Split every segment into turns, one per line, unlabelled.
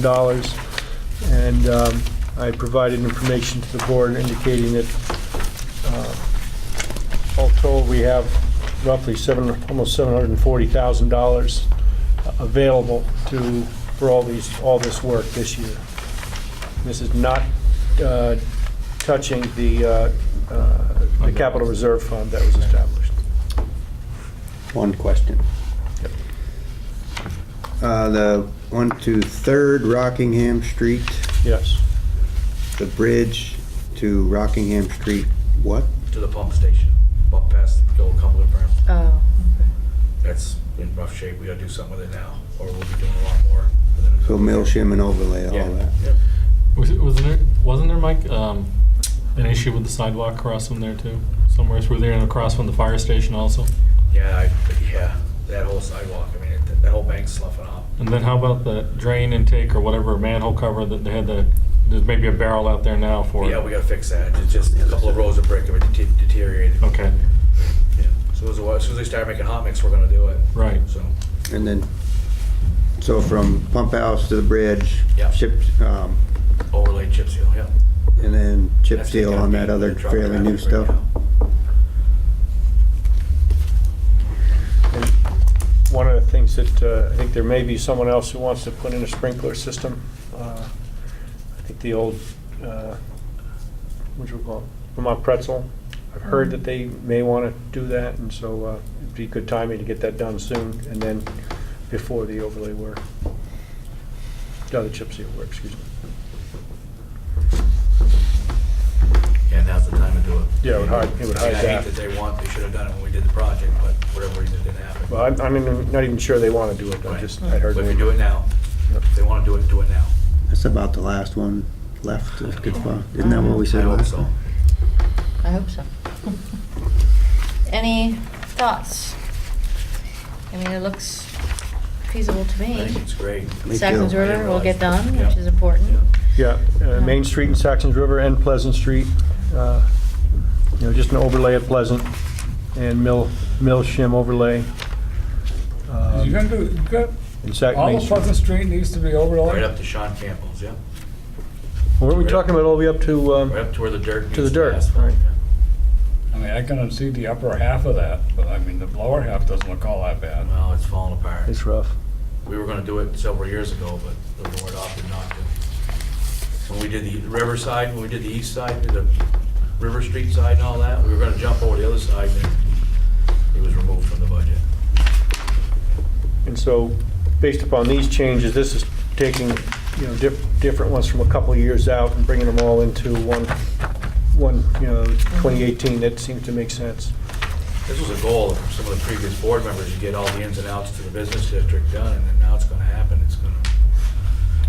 $1,000. And um, I provided information to the board indicating that uh, all told, we have roughly seven, almost $740,000 available to, for all these, all this work this year. This is not uh, touching the, uh, uh, the capital reserve fund that was established.
One question. Uh, the one to Third Rockingham Street,
Yes.
the bridge to Rockingham Street, what?
to the pump station, up past the old Cumberland Farm.
Oh,
That's in rough shape. We gotta do something with it now, or we'll be doing a lot more. within a
So
couple
mill
years.
shim and overlay,
Yeah.
all that.
Yep.
Was it, wasn't there, wasn't there, Mike, um, an issue with the sidewalk across from there too? Somewhere through there and across from the fire station also?
Yeah, I, yeah, that whole sidewalk, I mean, it- that whole bank's sloughing off.
And then how about the drain intake or whatever manhole cover that they had the, there's maybe a barrel out there now for?
Yeah, we gotta fix that. It's just a couple of rows of brick have dete- deteriorated.
Okay,
Yeah. So as soon as they start making hot mix, we're gonna do it.
right.
So,
And then, so from pump house to the bridge,
Yeah.
chip, um,
overlay chip seal, yeah.
and then chip
That's
seal
gotta
on
be
that other
the truck
fairly new
traffic right
stuff.
now.
And One of the things that, uh, I think there may be someone else who wants to put in a sprinkler system. Uh, I think the old, uh, what do you call it, Vermont Pretzel. I've heard that they may want to do that, and so uh, it'd be good timing to get that done soon, and then before the overlay work. No, the chip seal work, excuse me.
Yeah, now's the time to do it.
Yeah, it would hide- it would
I mean,
hide
I
that.
hate that they want, they should have done it when we did the project, but whatever reason it didn't happen.
Well, I'm- I'm even- not even sure they want to do it, I
Right.
just, I heard.
But if you do it now,
Yep.
if they want to do it, do it now.
That's about the last one left to get filed. Isn't that what we
Uh, I
said
hope
last
so.
time?
I hope so. Any thoughts? I mean, it looks feasible to
I think
me.
it's great.
Me
Sackles
too.
River will get done,
Yeah.
which is important.
Yeah, uh, Main Street and Saxons River and Pleasant Street, uh, you know, just an overlay of Pleasant and Mill, Mill Shim overlay. um,
You're gonna do, you got,
and Sac-
all
Main
of
Street.
Pleasant Street needs to be
Right
overlaid.
up to Sean Campbell's, yeah.
What were we talking about, all the way up to,
Right
um,
up to where the dirt meets
the dirt,
asphalt.
right.
I mean, I can see the upper half of that, but I mean, the lower half doesn't look all that bad.
Well, it's falling apart.
it's rough.
We were gonna do it several years ago, but the board opted not to. When we did the Riverside, when we did the east side, did the River Street side and all that, we were gonna jump over the other side, and it was removed from the budget.
And so, based upon these changes, this is taking, you know, diff- different ones from a couple of years out and bringing them all into one, one, you know, 2018, that seems to make sense.
This was a goal of some of the previous board members, to get all the ins and outs to the business district done, and then now it's gonna happen, it's gonna,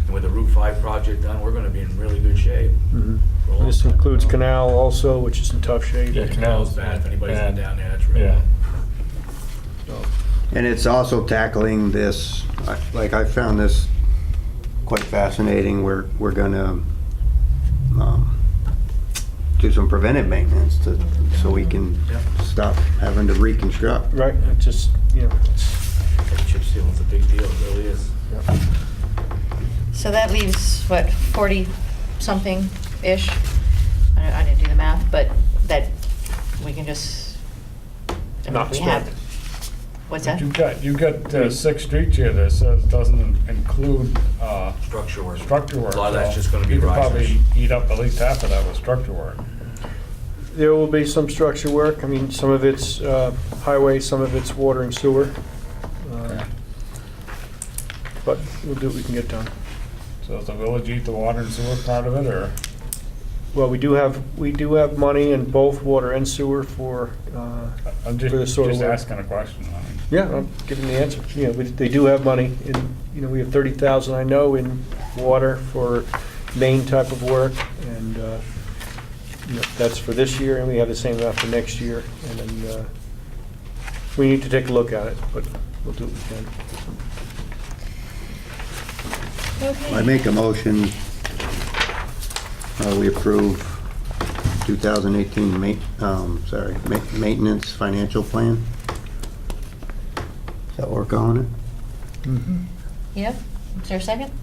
and with the Route 5 project done, we're gonna be in really good shape.
Mhm.
for a long
This
time.
includes Canal also, which is in tough shape.
Yeah,
Canal's bad, if anybody's been down there, it's really,
Yeah.
So,
And it's also tackling this, I- like, I found this quite fascinating. We're, we're gonna um, do some preventive maintenance to, so we can
Yep.
stop having to reconstruct.
Right, it just, you know,
that chip seal is a big deal, it really is.
So that leaves, what, 40-something-ish? I don't- I didn't do the math, but that, we can just, I mean,
Not
we
spend.
have. What's that?
You've got, you've got uh, six streets here that says doesn't include, uh,
Structure work.
structure work.
A lot of that's
so
just gonna be
You could
risers.
probably eat up at least half of that with structure work.
There will be some structure work. I mean, some of it's uh, highway, some of it's water and sewer. Uh, But we'll do what we can get done.
So does the village eat the water and sewer part of it, or?
Well, we do have, we do have money in both water and sewer for, uh,
I'm
For the
just,
sewer
just
work.
asking a question. I mean.
yeah, I'm giving the answer. You know, we- they do have money in, you know, we have 30,000, I know, in water for main type of work. And, uh, you know, that's for this year and we have the same amount for next year. And then uh, we need to take a look at it, but we'll do what we can.
Okay.
I make a motion, uh, we approve 2018 ma, um, sorry, ma, maintenance financial plan. Does that work on it?
Yep. Is there a second?